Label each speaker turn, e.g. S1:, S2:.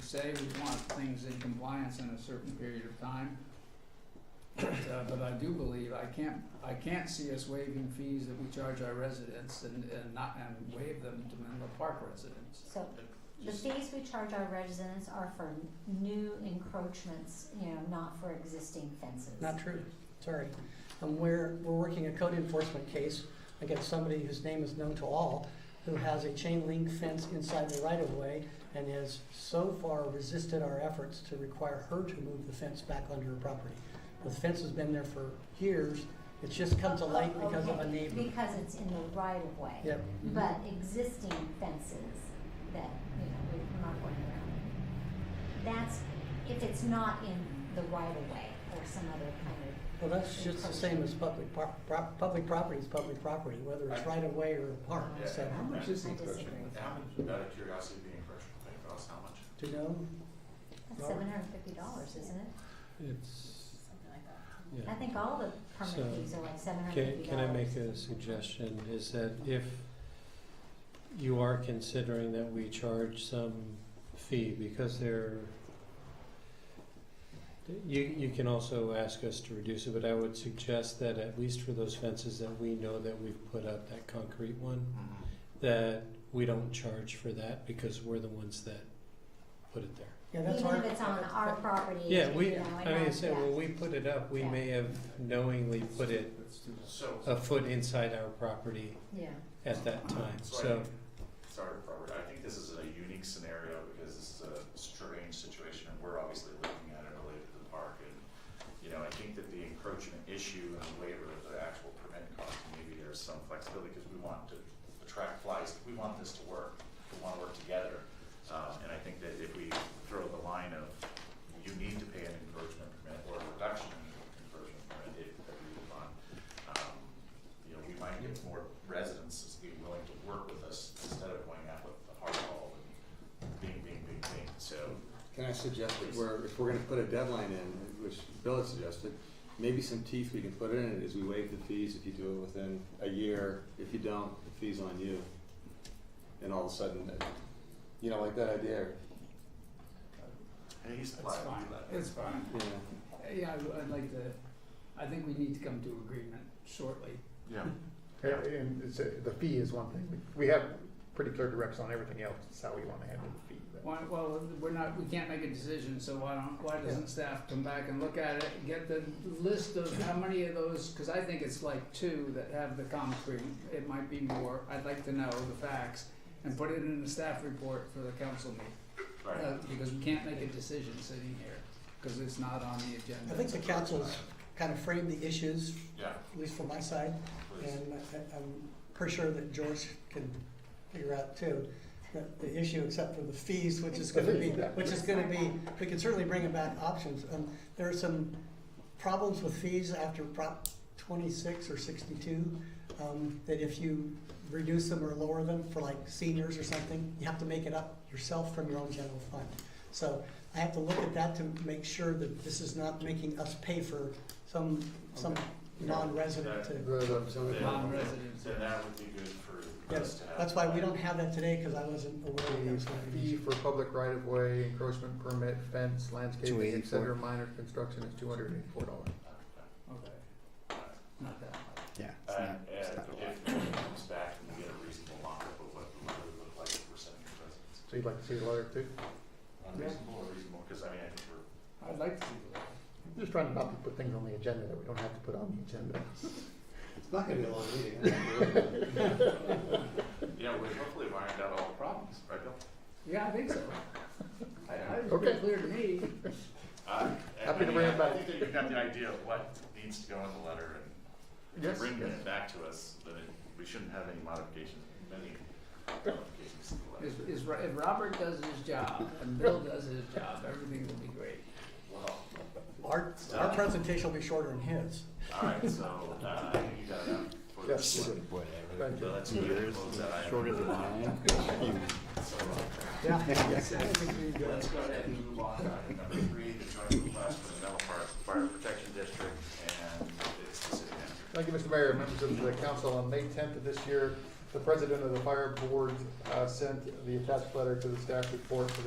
S1: say we want things in compliance in a certain period of time. But, uh, but I do believe, I can't, I can't see us waiving fees that we charge our residents and, and not, and waive them to Menlo Park residents.
S2: So the fees we charge our residents are for new encroachments, you know, not for existing fences.
S3: Not true, sorry. Um, we're, we're working a code enforcement case against somebody whose name is known to all, who has a chain link fence inside the right of way and has so far resisted our efforts to require her to move the fence back onto her property. The fence has been there for years, it just comes to light because of a neighbor.
S2: Because it's in the right of way.
S3: Yep,
S2: But existing fences that, you know, we're not going around. That's, if it's not in the right of way or some other kind of
S3: well, that's just the same as public par- pro- public property is public property, whether it's right of way or a park,
S4: Yeah.
S3: so,
S1: How much is the
S2: I
S1: encroachment?
S2: disagree.
S4: How much, out of curiosity, the encroachment thing costs how much?
S3: do you know?
S2: That's
S3: Robert?
S2: seven hundred and fifty dollars, isn't it?
S5: It's,
S2: I
S5: yeah.
S2: think all the
S5: So,
S2: permit fees are like seven hundred and
S5: Can,
S2: fifty
S5: can
S2: dollars.
S5: I make a suggestion, is that if you are considering that we charge some fee, because they're, you, you can also ask us to reduce it, but I would suggest that at least for those fences that we know that we've put up, that concrete one, that we don't charge for that, because we're the ones that put it there.
S3: Yeah, that's
S2: Even
S3: our.
S2: if it's on our property, you
S5: Yeah,
S2: know,
S5: we,
S2: and
S5: I mean,
S2: not-
S5: say,
S2: yeah.
S5: well, we put it up, we
S2: Yeah.
S5: may have knowingly put it
S4: So,
S5: a foot inside our property
S2: Yeah,
S5: at that time,
S4: so,
S5: so,
S4: I think- sorry, Robert, I think this is a unique scenario because this is a strange situation and we're obviously looking at it related to the park and, you know, I think that the encroachment issue and the waiver of the actual permit cost, maybe there's some flexibility because we want to attract flies, we want this to work, we wanna work together. Um, and I think that if we throw the line of, you need to pay an encroachment permit or a reduction in encroachment permit if agreed upon, um, you know, we might get more residents being willing to work with us instead of going out with the hard ball and bing, bing, bing, bing, so.
S6: Can I suggest that we're, if we're gonna put a deadline in, which Bill had suggested, maybe some teeth we can put in it is we waive the fees if you do it within a year. If you don't, the fee's on you. And all of a sudden, uh, you know, like that idea,
S4: And he's
S1: It's
S4: applied
S1: fine,
S4: to that.
S1: it's fine.
S6: yeah.
S1: Yeah, I- I'd like to, I think we need to come to agreement shortly.
S4: Yeah.
S7: Yeah, And it's, a- the fee is one thing. We have pretty clear direction on everything else. It's how we want to handle the fee. but-
S1: Why, well, we're not, we can't make a decision, so why don't, why doesn't staff come back and look at it, get the list of how many of those, cause I think it's like two that have the concrete, it might be more, I'd like to know the facts, and put it in the staff report for the council meeting.
S4: Right,
S1: Uh, Because we can't make a decision sitting here, cause it's not on the agenda.
S3: I think the council's kind of framed the issues,
S4: yeah,
S3: at least from my side,
S4: please.
S3: and I- I'm pretty sure that George can figure out too, that the issue except for the fees, which is gonna be, which is gonna be, we can certainly bring about options. Um, there are some problems with fees after Prop twenty-six or sixty-two, um, that if you reduce them or lower them for like seniors or something, you have to make it up yourself from your own general fund. So I have to look at that to make sure that this is not making us pay for some, some
S6: Okay.
S3: non-resident to
S1: Non-residents.
S4: So that would be good for us
S3: Yes,
S4: to have.
S3: that's why we don't have that today, because I wasn't aware that was going to
S8: Fee
S3: be.
S8: for public right of way, encroachment permit, fence, landscaping, et
S9: 284.
S8: cetera, minor construction is two hundred and eighty-four dollars.
S1: Okay. Not that.
S9: Yeah, it's
S4: Uh,
S9: not,
S4: and
S9: it's not a lot.
S4: if it comes back and we get a reasonable mock-up of what it would look like if we're sending the residents.
S8: So you'd like to see the letter too?
S4: Unreasonable or reasonable, because I mean, I think we're
S1: I'd like to see that.
S8: Just trying not to put things on the agenda that we don't have to put on the agenda.
S6: It's not gonna be a long meeting.
S4: Yeah, we hopefully ironed out all the problems, right, Bill?
S1: Yeah, I think so. I, I, it's
S8: Okay.
S1: pretty clear to me.
S4: Uh, I- I
S8: Happy to
S4: mean,
S8: bring it
S4: I-
S8: back.
S4: I think that you've got the idea of what needs to go in the letter, and if
S8: Yes,
S4: you bring
S8: yes.
S4: it back to us, then it- we shouldn't have any modifications, many modifications to the
S1: Is,
S4: letter.
S1: is, Ro- if Robert does his job and Bill does his job, everything will be great.
S4: Well,
S3: Our, our presentation will be shorter than his.
S4: all right, so, uh, I think you got enough for
S8: Yes,
S4: this
S8: we
S4: one.
S8: do.
S9: Boy, that really-
S8: Thank
S4: So
S8: you.
S4: let's close that item.
S9: Shorter than mine.
S4: uh, Let's go ahead and move on to item number three, the joint request for the Menlo Park Fire Protection District, and it's the city manager.
S8: Thank you, Mr. Mayor, members of the council. On May tenth of this year, the president of the fire board, uh, sent the attached letter to the staff report for the